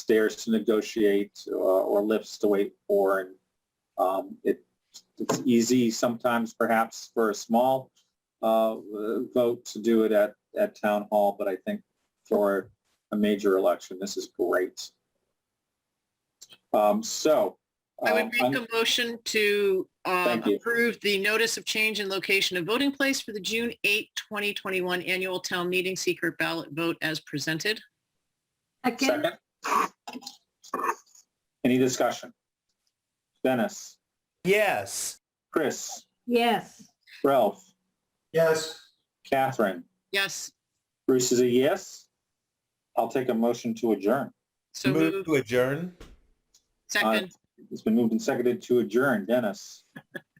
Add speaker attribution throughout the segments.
Speaker 1: stairs to negotiate uh, or lifts to wait for. And um, it, it's easy sometimes perhaps for a small uh, vote to do it at, at town hall, but I think for a major election, this is great. Um, So.
Speaker 2: I
Speaker 1: um,
Speaker 2: would
Speaker 1: I'm-
Speaker 2: make a motion to um,
Speaker 1: Thank you.
Speaker 2: approve the notice of change in location of voting place for the June 8, 2021 annual town meeting secret ballot vote as presented.
Speaker 3: Second,
Speaker 1: Second? Any discussion? Dennis,
Speaker 4: Yes.
Speaker 1: Chris,
Speaker 3: yes.
Speaker 1: Ralph,
Speaker 4: Yes.
Speaker 1: Catherine.
Speaker 2: Yes,
Speaker 1: Bruce is a yes. I'll take a motion to adjourn.
Speaker 2: so
Speaker 4: Move
Speaker 2: moved.
Speaker 4: to adjourn.
Speaker 2: Second,
Speaker 1: It's been moved and seconded to adjourn. Dennis,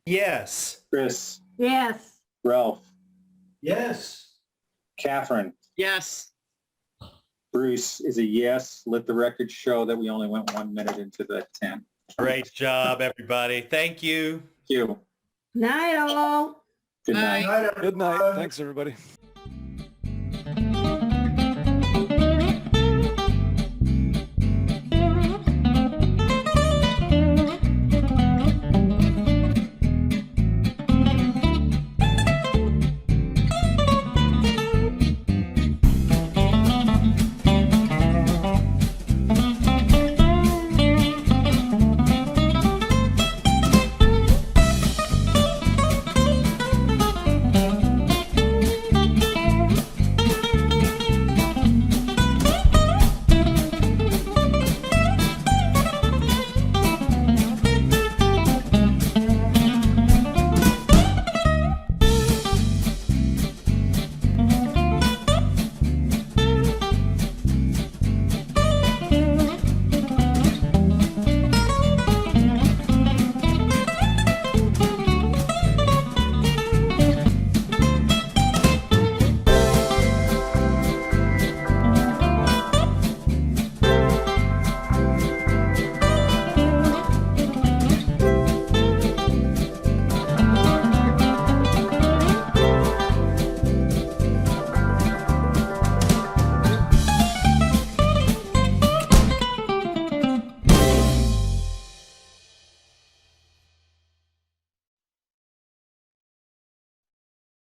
Speaker 4: Yes.
Speaker 1: Chris,
Speaker 3: Yes.
Speaker 1: Ralph,
Speaker 4: Yes.
Speaker 1: Catherine.
Speaker 2: yes.
Speaker 1: Bruce is a yes. Let the record show that we only went one minute into the 10.
Speaker 4: Great job, everybody. Thank you.
Speaker 1: Thank you.
Speaker 3: Night all.
Speaker 1: Good
Speaker 2: Bye.
Speaker 1: night.
Speaker 5: Good night. Thanks, everybody.